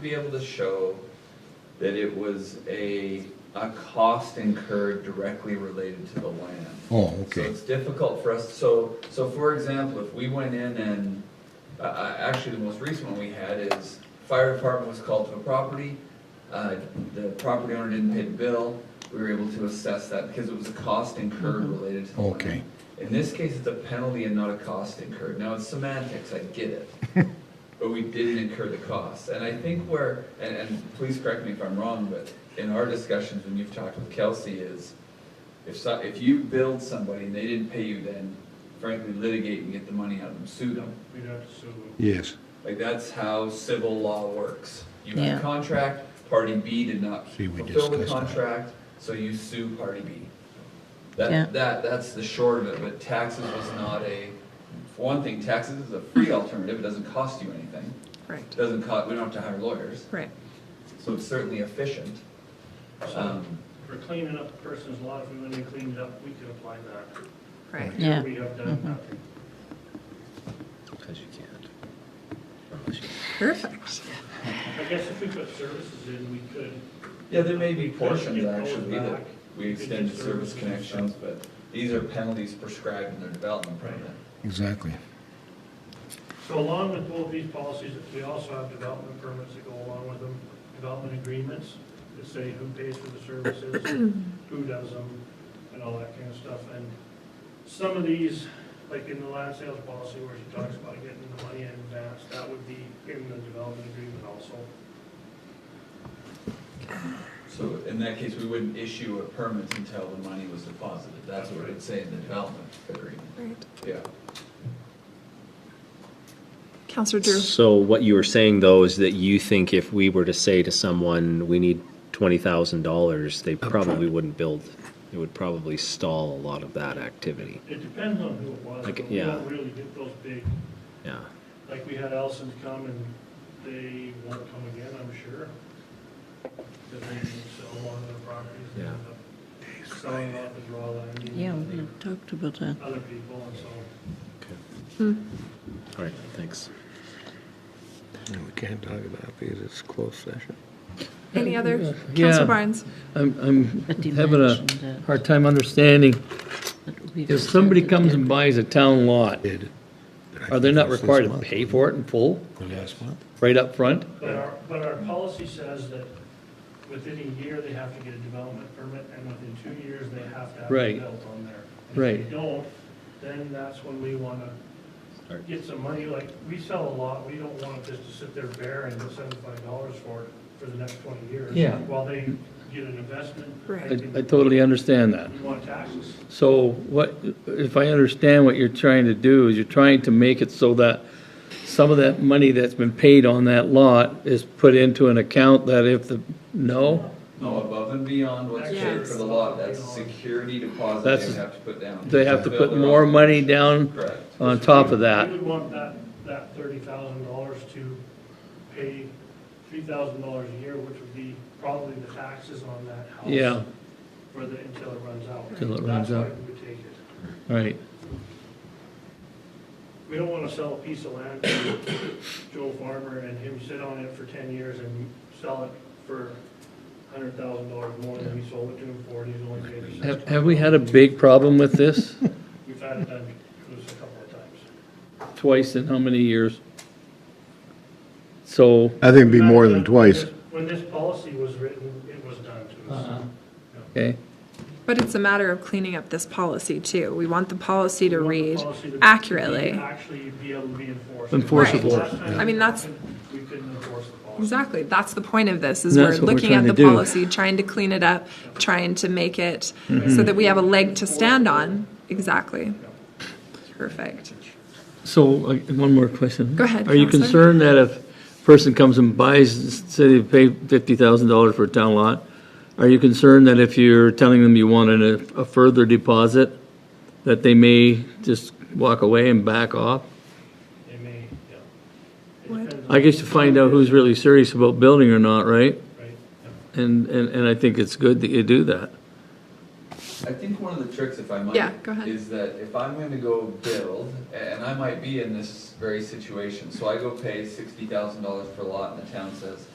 be able to show that it was a, a cost incurred directly related to the land. Oh, So okay. it's difficult for us, so, so for example, if we went in and, uh, uh, actually, the most recent one we had is fire department was called to a property, uh, the property owner didn't pay the bill, we were able to assess that because it was a cost incurred related to the land. Okay. In this case, it's a penalty and not a cost incurred. Now, it's semantics, I get it. But we didn't incur the cost. And I think where, and, and please correct me if I'm wrong, but in our discussions, when you've talked with Kelsey, is if so, if you build somebody and they didn't pay you, then frankly litigate and get the money out of them, sue them. We'd have to sue them. Yes, Like, that's how civil law works. You have Yeah. a contract, party B did not See, we fulfill the discussed that. contract, so you sue party B. Yeah. That, that, that's the short of it, but taxes was not a, for one thing, taxes is a free alternative, it doesn't cost you anything. It Right, Doesn't cost, we don't have to hire lawyers, right. so it's certainly efficient. So Um, for cleaning up the person's lot, if we went and cleaned it up, we could apply that. Right. Here Yeah. We have done nothing. Because you can't. Perfect. I guess if we put services in, we could. Yeah, there may be We could portions get those actually that back. we We could extend to do service services and connections, but these are penalties prescribed in their development Right. permit. exactly. So along with both these policies, we also have development permits that go along with them, development agreements that say who pays for the services, who does them, and all that kind of stuff. And some of these, like in the land sales policy where she talks about getting the money in advance, that would be in the development agreement also. So in that case, we wouldn't issue a permit until the money was deposited. That's what it would say in the development agreement. Right. Yeah. Counselor Drew, So what you were saying though is that you think if we were to say to someone, we need twenty thousand dollars, they probably wouldn't build. It would probably stall a lot of that activity. It depends on who it was, Like, but we don't yeah. really get those big, Yeah. like we had Allison come and they won't come again, I'm sure. Because they didn't sell one of their properties. and Yeah. end up Selling off as raw land. Yeah, we had talked about that. Other people, and so. All right, thanks. We can't talk about it because it's closed session. any other? Yeah. Counselor Barnes? I'm, I'm having a dimension hard time understanding. that we've If somebody asserted comes that- and buys a town lot, Did. are they not required to pay for it in full, Last month. right up front? But our, but our policy says that within a year, they have to get a development permit, and within two years, they have to have it Right. built on there. And If Right. they don't, then that's when we want to Start. get some money, like, we sell a lot, we don't want it just to sit there bare and get seventy-five dollars for it for the next twenty years. Yeah. While they get an investment. Right. I, think I totally understand that. We want taxes. So what, if I understand what you're trying to do, is you're trying to make it so that some of that money that's been paid on that lot is put into an account that if the, no? No, above and beyond what's paid for Yes. the lot, that's a security deposit That's- they have to put down. They have to put Build their more own- money down Correct. on top of that? We would want that, that thirty thousand dollars to pay three thousand dollars a year, which would be probably the taxes on that house. Yeah. For the, until it runs out. Till it runs That's out. why we would take it. Right, We don't wanna sell a piece of land to Joe Farmer and him sit on it for ten years and sell it for hundred thousand dollars more than we sold it to him for, and he's only paid us six have, hundred. have we had a big problem with this We've had it done to us a couple of times. twice in how many years? So, I think it'd be more than twice. When this policy was written, it was done to Uh-huh. us. okay, But it's a matter of cleaning up this policy too. We want the policy to We want the read policy to be- accurately. Actually be able to be enforced. Enforceable. Last time I mean, that's- We couldn't enforce the policy. Exactly. That's the point of this, is And we're that's what we're looking at trying the to do. policy, trying to clean it up, trying to make it Mm-hmm. so that we have a leg to stand on. Exactly. Perfect. so, uh, one more question. Go ahead, Are you Counselor. concerned that if a person comes and buys, say they pay fifty thousand dollars for a town lot, are you concerned that if you're telling them you want an- a further deposit, that they may just walk away and back off? They may, yeah. It What? depends on- I guess you find out who's really serious about building or not, right? Right, yeah. And, and, and I think it's good that you do that. I think one of the tricks, if I might. Yeah, go ahead. Is that if I'm going to go build, a- and I might be in this very situation, so I go pay sixty thousand dollars per lot and the town says,